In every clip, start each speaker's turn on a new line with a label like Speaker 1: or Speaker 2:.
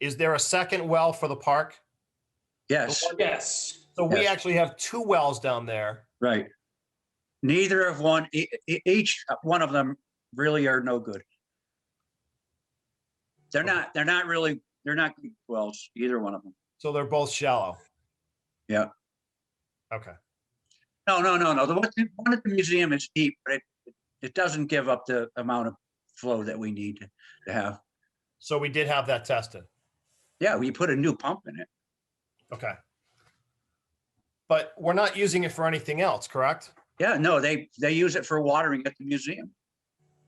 Speaker 1: Is there a second well for the park?
Speaker 2: Yes,
Speaker 1: Oh,
Speaker 3: Yes.
Speaker 1: So we
Speaker 2: Yes.
Speaker 1: actually have two wells down there.
Speaker 2: right. Neither of one, e- e- each one of them really are no good. They're
Speaker 1: Okay.
Speaker 2: not, they're not really, they're not good wells, either one of them.
Speaker 1: So they're both shallow.
Speaker 2: Yeah.
Speaker 1: Okay.
Speaker 2: No, no, no, no. The one, the one at the museum is deep, but it, it doesn't give up the amount of flow that we need to- to have.
Speaker 1: So we did have that tested.
Speaker 2: Yeah, we put a new pump in it.
Speaker 1: Okay. But we're not using it for anything else, correct?
Speaker 2: Yeah, no, they, they use it for watering at the museum.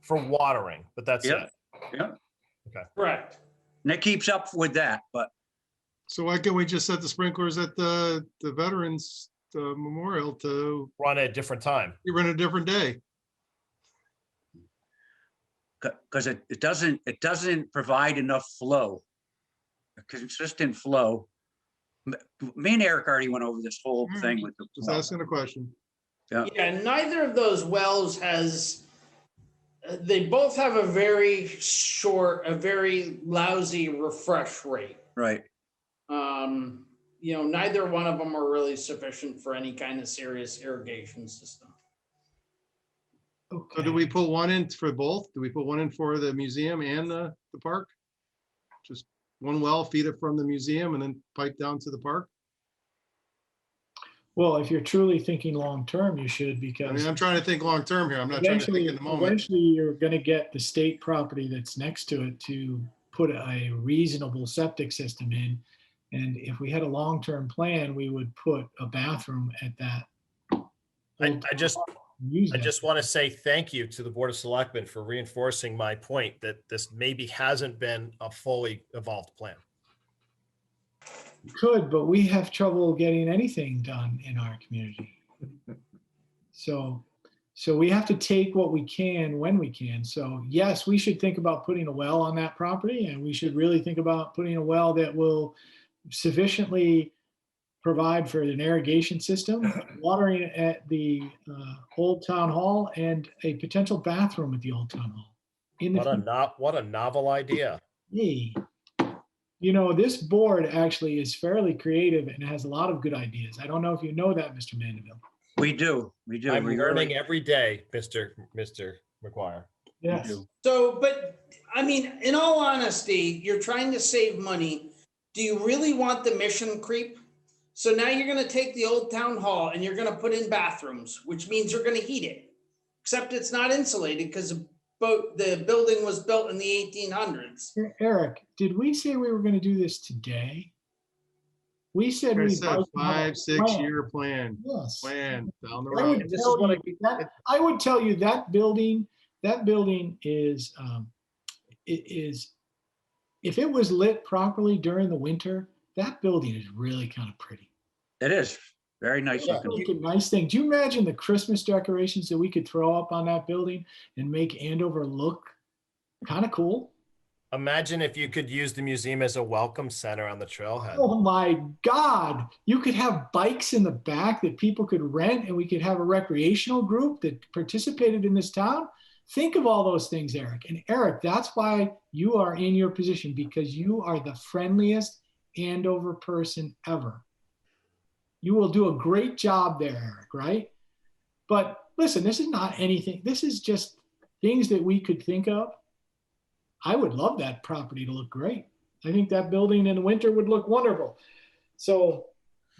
Speaker 1: For watering, but that's
Speaker 2: Yeah.
Speaker 1: it.
Speaker 3: Correct.
Speaker 2: And it keeps up with that, but
Speaker 4: So why can't we just set the sprinklers at the, the Veterans uh, Memorial to
Speaker 1: Run at a different time.
Speaker 4: run a different day?
Speaker 2: because it, it doesn't, it doesn't provide enough flow. a Consistent flow. M- Me and Eric already went over this whole
Speaker 4: Mm,
Speaker 2: thing with the.
Speaker 4: Just asking a question.
Speaker 3: Yeah, neither of those wells has, uh, they both have a very short, a very lousy refresh rate.
Speaker 2: Right,
Speaker 3: Um, you know, neither one of them are really sufficient for any kind of serious irrigation system.
Speaker 4: So do we put one in for both? Do we put one in for the museum and the, the park? Just one well, feed it from the museum and then pipe down to the park?
Speaker 5: Well, if you're truly thinking long-term, you should
Speaker 4: I
Speaker 5: because
Speaker 4: mean, I'm trying to think long-term here. I'm not trying to
Speaker 5: eventually,
Speaker 4: think in the moment.
Speaker 5: eventually you're gonna get the state property that's next to it to put a reasonable septic system in. And if we had a long-term plan, we would put a bathroom at that.
Speaker 1: I, I just,
Speaker 5: Use
Speaker 1: I
Speaker 5: that.
Speaker 1: just want to say thank you to the Board of Selectmen for reinforcing my point that this maybe hasn't been a fully evolved plan.
Speaker 5: Could, but we have trouble getting anything done in our community. So, so we have to take what we can when we can. So yes, we should think about putting a well on that property and we should really think about putting a well that will sufficiently provide for an irrigation system, watering at the uh, Old Town Hall and a potential bathroom at the Old Town Hall. In the
Speaker 1: What a not, what a novel idea.
Speaker 5: me. You know, this board actually is fairly creative and has a lot of good ideas. I don't know if you know that, Mr. Mandeville.
Speaker 2: we do, we do.
Speaker 1: I'm
Speaker 2: we
Speaker 1: learning
Speaker 2: really
Speaker 1: every day, Mr. Mr. McGuire.
Speaker 5: Yes.
Speaker 2: do.
Speaker 3: So, but I mean, in all honesty, you're trying to save money. Do you really want the mission creep? So now you're gonna take the old town hall and you're gonna put in bathrooms, which means you're gonna heat it. Except it's not insulated because the boat, the building was built in the eighteen hundreds.
Speaker 5: E, Eric, did we say we were going to do this today? We said
Speaker 4: I
Speaker 5: we.
Speaker 4: said
Speaker 5: built another
Speaker 4: five, six
Speaker 5: plan.
Speaker 4: year plan,
Speaker 5: Yes.
Speaker 4: plan down the
Speaker 5: I
Speaker 4: road.
Speaker 5: would tell you that- I would tell you that building, that building is, um, it is, if it was lit properly during the winter, that building is really kind of pretty.
Speaker 2: It is very nice.
Speaker 5: That's
Speaker 2: looking.
Speaker 5: like a nice thing. Do you imagine the Christmas decorations that we could throw up on that building and make Andover look kind of cool?
Speaker 1: Imagine if you could use the museum as a welcome center on the trailhead.
Speaker 5: Oh my God. You could have bikes in the back that people could rent and we could have a recreational group that participated in this town. Think of all those things, Eric. And Eric, that's why you are in your position because you are the friendliest Andover person ever. You will do a great job there, Eric, right? But listen, this is not anything. This is just things that we could think of. I would love that property to look great. I think that building in the winter would look wonderful. So,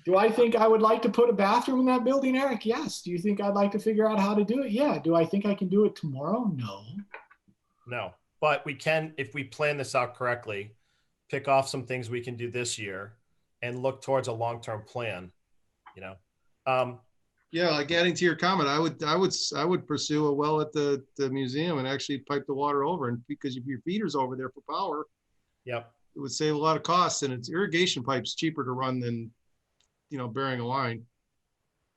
Speaker 5: do I think I would like to put a bathroom in that building, Eric? Yes. Do you think I'd like to figure out how to do it? Yeah. Do I think I can do it tomorrow? No.
Speaker 1: No, but we can, if we plan this out correctly, pick off some things we can do this year and look towards a long-term plan, you know? Um,
Speaker 4: Yeah, like adding to your comment, I would, I would, s- I would pursue a well at the, the museum and actually pipe the water over. And because if your feeder's over there for power,
Speaker 1: yep,
Speaker 4: it would save a lot of costs and it's irrigation pipes cheaper to run than, you know, burying a line.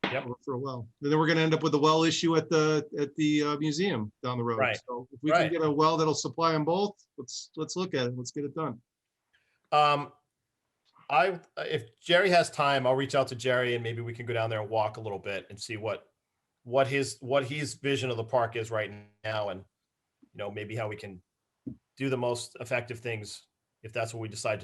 Speaker 1: Yep.
Speaker 4: For a well. And then we're gonna end up with a well issue at the, at the uh, museum down the road.
Speaker 1: Right.
Speaker 4: So if we can
Speaker 1: Right.
Speaker 4: get a well that'll supply them both, let's, let's look at it. Let's get it done.
Speaker 1: Um, I, if Jerry has time, I'll reach out to Jerry and maybe we can go down there and walk a little bit and see what, what his, what his vision of the park is right now and, you know, maybe how we can do the most effective things if that's what we decide to